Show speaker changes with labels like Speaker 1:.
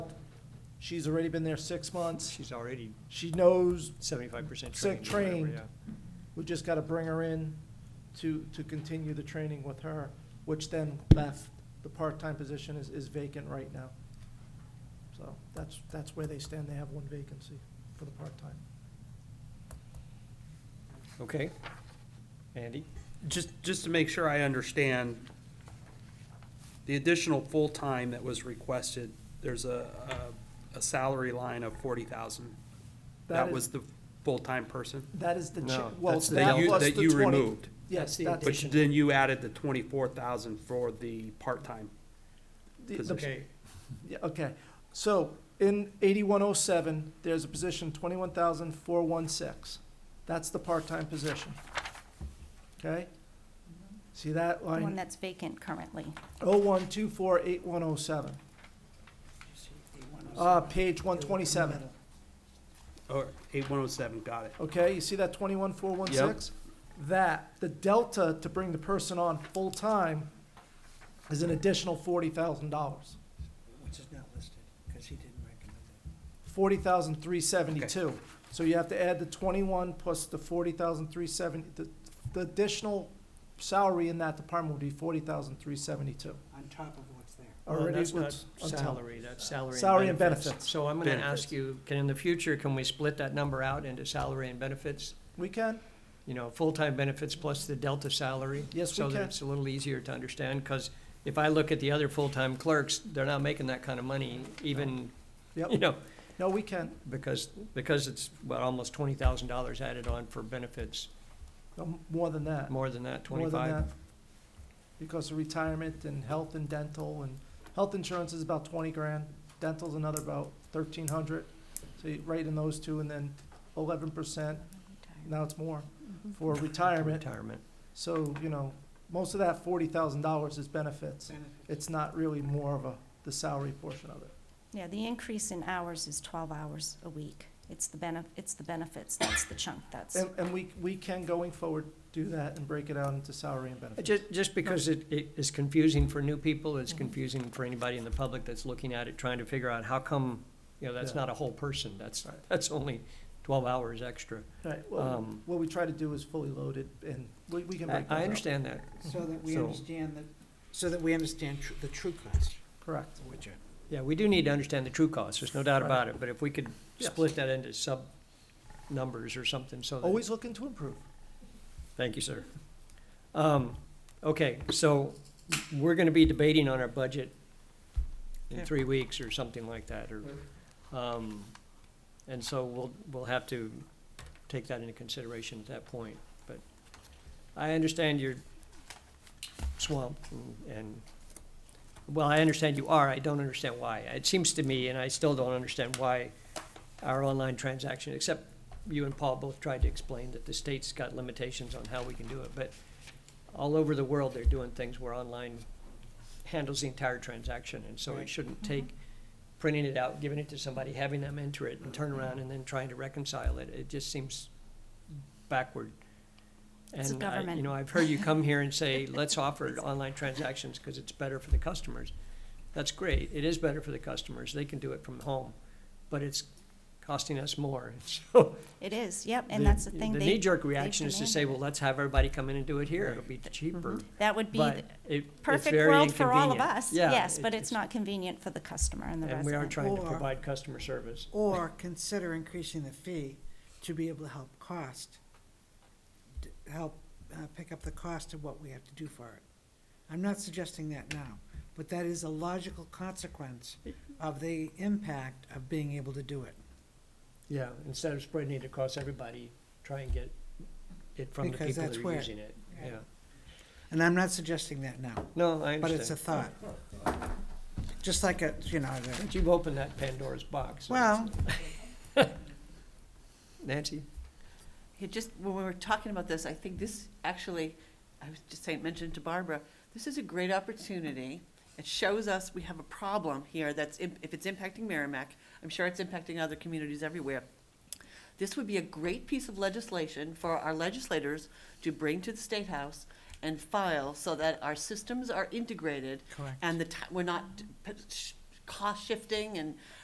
Speaker 1: She's already been there six months.
Speaker 2: She's already
Speaker 1: She knows,
Speaker 2: seventy-five percent
Speaker 1: Sick
Speaker 2: trained. or whatever,
Speaker 1: trained.
Speaker 2: yeah.
Speaker 1: we just got to bring her in to, to continue the training with her, which then left, the part-time position is, is vacant right now. So that's, that's where they stand. They have one vacancy for the part-time.
Speaker 2: Okay. Andy?
Speaker 3: Just, just to make sure I understand, the additional full-time that was requested, there's a, a- a salary line of forty thousand.
Speaker 1: That
Speaker 3: That
Speaker 1: is-
Speaker 3: was the full-time person?
Speaker 1: That is the, cha-
Speaker 2: No,
Speaker 1: well,
Speaker 2: that's the
Speaker 1: that
Speaker 3: you-
Speaker 1: plus the
Speaker 3: that
Speaker 1: 20.
Speaker 3: you removed.
Speaker 1: Yes,
Speaker 2: That's the
Speaker 1: that's,
Speaker 3: But
Speaker 2: Addition.
Speaker 3: then you added the twenty-four thousand for the part-time.
Speaker 1: the- the-
Speaker 3: position.
Speaker 2: Okay.
Speaker 1: yeah, okay. So in eighty-one oh seven, there's a position twenty-one thousand four one six. That's the part-time position. Okay? See that
Speaker 4: The one
Speaker 1: line?
Speaker 4: that's vacant currently.
Speaker 1: Oh one two four eight one oh seven. Uh, page one twenty-seven.
Speaker 3: Or eight one oh seven, got it.
Speaker 1: Okay, you see that twenty-one, four, one, six? That, the delta to bring the person on full-time is an additional forty thousand dollars.
Speaker 5: Which is not listed, because he didn't recommend it.
Speaker 1: Forty thousand, three seventy-two. So you have to add the twenty-one plus the forty thousand, three seventy, the, the additional salary in that department would be forty thousand, three seventy-two.
Speaker 5: on top of what's there.
Speaker 2: Well,
Speaker 1: Already
Speaker 2: that's not
Speaker 1: what's on top.
Speaker 2: Salary, that's salary.
Speaker 1: Salary and benefits.
Speaker 2: So I'm gonna
Speaker 3: Benefits.
Speaker 2: ask you, can, in the future, can we split that number out into salary and benefits?
Speaker 1: We can,
Speaker 2: You know, full-time benefits plus the delta salary?
Speaker 1: Yes, we
Speaker 2: So that
Speaker 1: can.
Speaker 2: it's a little easier to understand, because if I look at the other full-time clerks, they're not making that kind of money, even,
Speaker 1: yep,
Speaker 2: you know,
Speaker 1: no, we can.
Speaker 2: because, because it's, well, almost twenty thousand dollars added on for benefits,
Speaker 1: No, More than that.
Speaker 2: more than that,
Speaker 1: More than
Speaker 2: twenty-five?
Speaker 1: that, Because of retirement and health and dental and, health insurance is about twenty grand, dental's another about thirteen hundred. So you write in those two and then eleven percent, now it's more, for retirement.
Speaker 2: Retirement.
Speaker 1: So, you know, most of that forty thousand dollars is benefits.
Speaker 5: Benefits.
Speaker 1: It's not really more of a, the salary portion of it.
Speaker 4: Yeah, the increase in hours is twelve hours a week. It's the benef, it's the benefits, that's the chunk, that's,
Speaker 1: And, and we, we can going forward do that and break it out into salary and benefits.
Speaker 2: Just, Uh, just because it, it is confusing for new people, it's confusing for anybody in the public that's looking at it, trying to figure out how come, you know, that's
Speaker 1: Yeah.
Speaker 2: not a whole person, that's,
Speaker 1: Right.
Speaker 2: that's only twelve hours extra.
Speaker 1: Right, well,
Speaker 2: Um,
Speaker 1: what we try to do is fully loaded and we, we can
Speaker 2: I,
Speaker 1: break that out.
Speaker 2: I understand that,
Speaker 5: So that we
Speaker 2: So-
Speaker 5: understand the, so that we understand tr- the true cost,
Speaker 1: Correct.
Speaker 5: which are.
Speaker 2: yeah, we do need to understand the true cost, there's no doubt
Speaker 1: Right.
Speaker 2: about it, but if we could
Speaker 1: Yes.
Speaker 2: split that into sub-numbers or something, so that.
Speaker 1: Always looking to improve.
Speaker 2: Thank you, sir. Um, okay, so we're gonna be debating on our budget in
Speaker 5: Yeah.
Speaker 2: three weeks or something like that, or, um, and so we'll, we'll have to take that into consideration at that point, but I understand you're swamped and- and, well, I understand you are, I don't understand why. It seems to me, and I still don't understand why our online transaction, except you and Paul both tried to explain that the state's got limitations on how we can do it, but all over the world, they're doing things where online handles the entire transaction, and so it
Speaker 5: Right.
Speaker 2: shouldn't take printing it out, giving it to somebody, having them enter it and turn around and then trying to reconcile it. It just seems backward.
Speaker 4: It's a
Speaker 2: And I, you
Speaker 4: government.
Speaker 2: know, I've heard you come here and say, let's offer online transactions because it's better for the customers. That's great. It is better for the customers. They can do it from home, but it's costing us more. So
Speaker 4: it is, yep, and that's the thing.
Speaker 2: The
Speaker 4: they-
Speaker 2: knee-jerk
Speaker 4: they've
Speaker 2: reaction is to say, well,
Speaker 4: demanded.
Speaker 2: let's have everybody come in and do it here. It'll be cheaper.
Speaker 4: That would Mm-hmm. be
Speaker 2: But
Speaker 4: the
Speaker 2: it, it's
Speaker 4: perfect
Speaker 2: very
Speaker 4: world for all of
Speaker 2: inconvenient.
Speaker 4: us,
Speaker 2: Yeah,
Speaker 4: yes,
Speaker 2: it-
Speaker 4: but it's not convenient for the customer and the
Speaker 2: And we are
Speaker 4: resident.
Speaker 2: trying to
Speaker 5: Or-
Speaker 2: provide customer service.
Speaker 5: Or consider increasing the fee to be able to help cost, d- help uh, pick up the cost of what we have to do for it. I'm not suggesting that now, but that is a logical consequence of the impact of being able to do it.
Speaker 2: Yeah, instead of spreading it across everybody, try and get it from the
Speaker 5: Because
Speaker 2: people
Speaker 5: that's
Speaker 2: that are
Speaker 5: where-
Speaker 2: using it. Yeah.
Speaker 5: And I'm not suggesting that now.
Speaker 2: No, I understand.
Speaker 5: But it's a thought. Just like a, you know, the-
Speaker 2: But you've opened that Pandora's box. so
Speaker 5: well,
Speaker 2: it's- Nancy?
Speaker 6: It just, when we were talking about this, I think this actually, I was just saying, mentioned to Barbara, this is a great opportunity. It shows us we have a problem here that's, im- if it's impacting Merrimack, I'm sure it's impacting other communities everywhere. This would be a great piece of legislation for our legislators to bring to the State House and file so that our systems are integrated
Speaker 5: Correct.
Speaker 6: and the, ti- we're not p- sh- cost shifting and